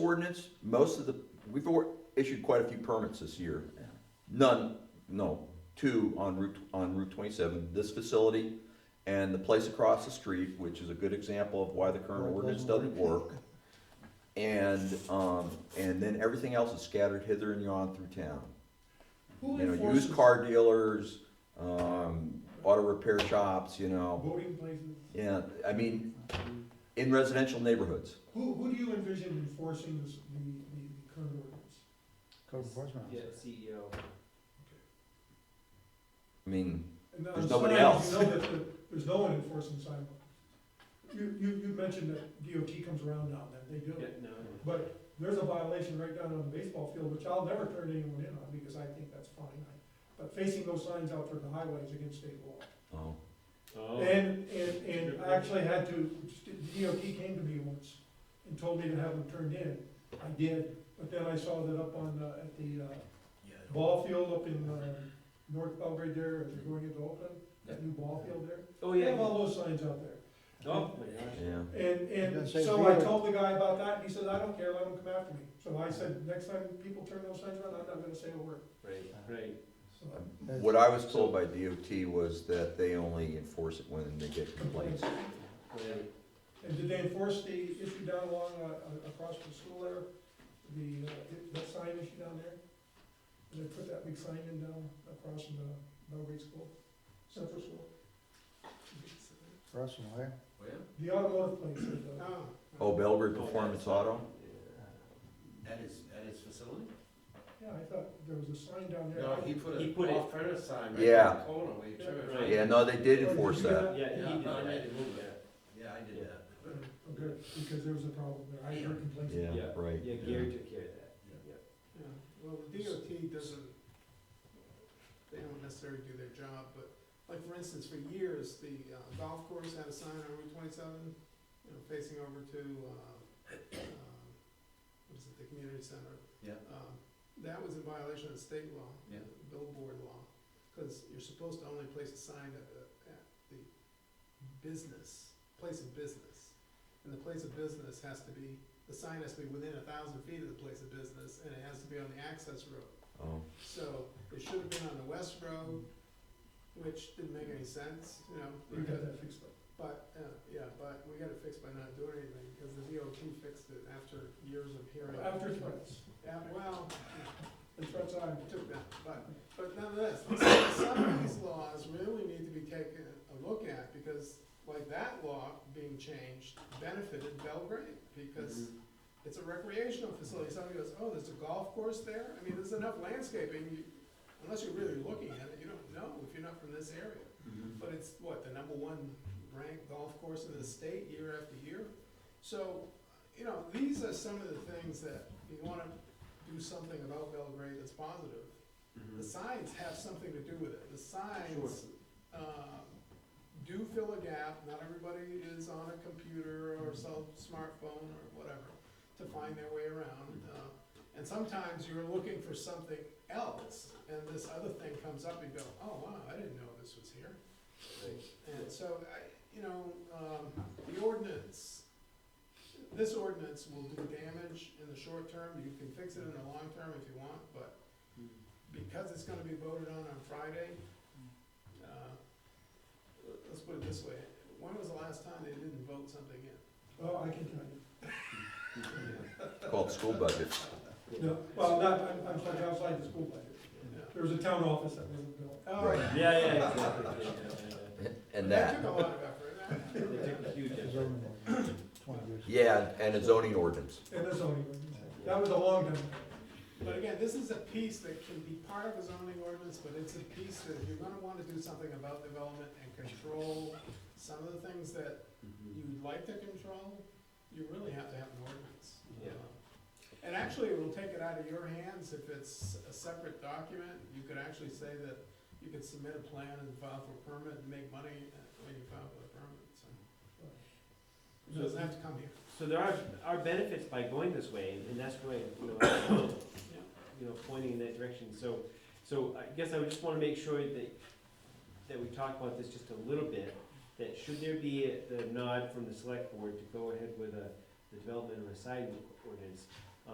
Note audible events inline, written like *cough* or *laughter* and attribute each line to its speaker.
Speaker 1: ordinance, most of the, we've or- issued quite a few permits this year. None, no, two on Route, on Route twenty-seven, this facility and the place across the street, which is a good example of why the current ordinance doesn't work. And, um, and then everything else is scattered hither and yon through town.
Speaker 2: Who
Speaker 1: You know,
Speaker 2: enforces
Speaker 1: used car dealers, um, auto repair shops, you know,
Speaker 2: voting places?
Speaker 1: yeah, I mean, in residential neighborhoods.
Speaker 2: Who, who do you envision enforcing this, the, the the current ordinance?
Speaker 3: Code enforcement
Speaker 4: Yeah, E
Speaker 3: officer.
Speaker 4: CEO.
Speaker 1: I mean,
Speaker 2: And on
Speaker 1: There's nobody
Speaker 2: signs,
Speaker 1: else.
Speaker 2: You know that there- there's no one enforcing sidewalks. You, you, you mentioned that DOT comes around now, that they do.
Speaker 4: Yeah, no.
Speaker 2: But there's a violation right down on the baseball field, which I'll never turn anyone in on because I think that's fine. But facing those signs out toward the highway is against state law.
Speaker 1: oh,
Speaker 4: Oh.
Speaker 2: And, and, and I actually had to, DOT came to me once and told me to have them turned in. I did, but then I saw that up on, uh, at the, uh, ball field up in, uh, North Belgrade there, as you're going into Oakland, that new ball field there.
Speaker 4: Oh,
Speaker 2: They
Speaker 4: yeah.
Speaker 2: have all those signs out there.
Speaker 4: Oh, my gosh.
Speaker 1: yeah.
Speaker 2: And,
Speaker 3: Yeah,
Speaker 2: and
Speaker 3: same
Speaker 2: so I
Speaker 3: deal.
Speaker 2: told the guy about that, and he said, I don't care, let them come after me. So I said, next time people turn those signs around, I'm not gonna say a word,
Speaker 4: Right, right.
Speaker 2: so.
Speaker 1: What I was told by DOT was that they only enforce it when they get complaints.
Speaker 4: right.
Speaker 2: And did they enforce the issue down along, uh, uh, across from the school there, the, uh, it- that sign issue down there? Did they put that big sign in down across from the Belgrade School, Central School?
Speaker 3: Russell, eh?
Speaker 2: The automotive place, uh,
Speaker 1: Oh, Belgrade Performance Auto?
Speaker 5: At his, at his facility?
Speaker 2: yeah, I thought there was a sign down there.
Speaker 5: No, he put
Speaker 4: He
Speaker 5: a
Speaker 4: put it-
Speaker 5: off-premise sign right
Speaker 1: Yeah.
Speaker 5: in the corner where you turn it.
Speaker 4: Right.
Speaker 1: Yeah, no, they did enforce that.
Speaker 4: Yeah, he
Speaker 5: Yeah,
Speaker 4: did
Speaker 5: I made
Speaker 4: that.
Speaker 5: him move it. Yeah, I did that.
Speaker 2: Okay, Oh, because there was a problem there, I heard complaints.
Speaker 1: Yeah,
Speaker 4: Yeah.
Speaker 1: right.
Speaker 4: Yeah, Gary took care of that.
Speaker 6: Yeah, well, the DOT doesn't, they don't necessarily do their job, but, like, for instance, for years, the uh, golf course had a sign on Route twenty-seven, you know, facing over to, uh, um, what is it, the community center.
Speaker 5: Yeah.
Speaker 6: Um, That was in violation of state law.
Speaker 5: Yeah.
Speaker 6: Billboard law, because you're supposed to only place a sign at, the- at the business, place of business. And the place of business has to be, the sign has to be within a thousand feet of the place of business, and it has to be on the access road.
Speaker 1: Oh,
Speaker 6: So it should have been on the west road, which didn't make any sense, you know,
Speaker 2: We got
Speaker 6: because-
Speaker 2: that fixed up.
Speaker 6: but, uh, yeah, but we got it fixed by not doing anything, because the DOT fixed it after years of hearing.
Speaker 2: After threats,
Speaker 6: Yeah, well,
Speaker 2: the threats I,
Speaker 6: it took that, but, but nonetheless, some- some of these laws really need to be taken a look at, because like that law being changed benefited Belgrade, because
Speaker 4: Mhm.
Speaker 6: it's a recreational facility, somebody goes, oh, there's a golf course there, I mean, there's enough landscaping, you, unless you're really looking at it, you don't know if you're not from this area.
Speaker 4: Mhm.
Speaker 6: But it's what, the number one ranked golf course in the state year after year? So, you know, these are some of the things that you wanna do something about Belgrade that's positive. The
Speaker 4: Mhm.
Speaker 6: signs have something to do with it. The signs, um, do fill a gap. Not everybody is on a computer or cell, smartphone or whatever to find their way around. Uh, And sometimes you're looking for something else and this other thing comes up and you go, oh, wow, I didn't know this was here.
Speaker 4: Right.
Speaker 6: And so, I, you know, um, the ordinance, this ordinance will do damage in the short term, you can fix it in the long term if you want, but because it's gonna be voted on on Friday, uh, let's put it this way, when was the last time they didn't vote something in?
Speaker 2: oh, I can tell you.
Speaker 1: it's called school budget.
Speaker 2: No, well, not, I'm, I'm talking outside the school budget.
Speaker 6: Yeah.
Speaker 2: There was a town office that wasn't built.
Speaker 6: Oh,
Speaker 1: Right.
Speaker 4: Yeah, yeah, exactly. Yeah, yeah, yeah.
Speaker 1: And that,
Speaker 6: That took a lot of effort. *laughs*
Speaker 4: They took a huge
Speaker 3: It's
Speaker 4: effort.
Speaker 2: *laughs*
Speaker 3: zoning ordinance, twenty years.
Speaker 1: yeah, and a zoning ordinance.
Speaker 2: And that's only, that was a long time ago.
Speaker 6: But again, this is a piece that can be part of a zoning ordinance, but it's a piece that if you're gonna wanna do something about development and control some of the things that
Speaker 4: Mhm.
Speaker 6: you'd like to control, you really have to have an ordinance.
Speaker 4: Yeah.
Speaker 6: And actually, it will take it out of your hands if it's a separate document. You could actually say that you could submit a plan and file for permit and make money uh, when you file for the permit, so. It doesn't have to come here.
Speaker 4: So there are, are benefits by going this way, and that's why, you know, I'm, you know, pointing in that direction. So, so I guess I would just wanna make sure that, that we talk about this just a little bit, that should there be a- the nod from the select board to go ahead with a, the development of a sign ordinance,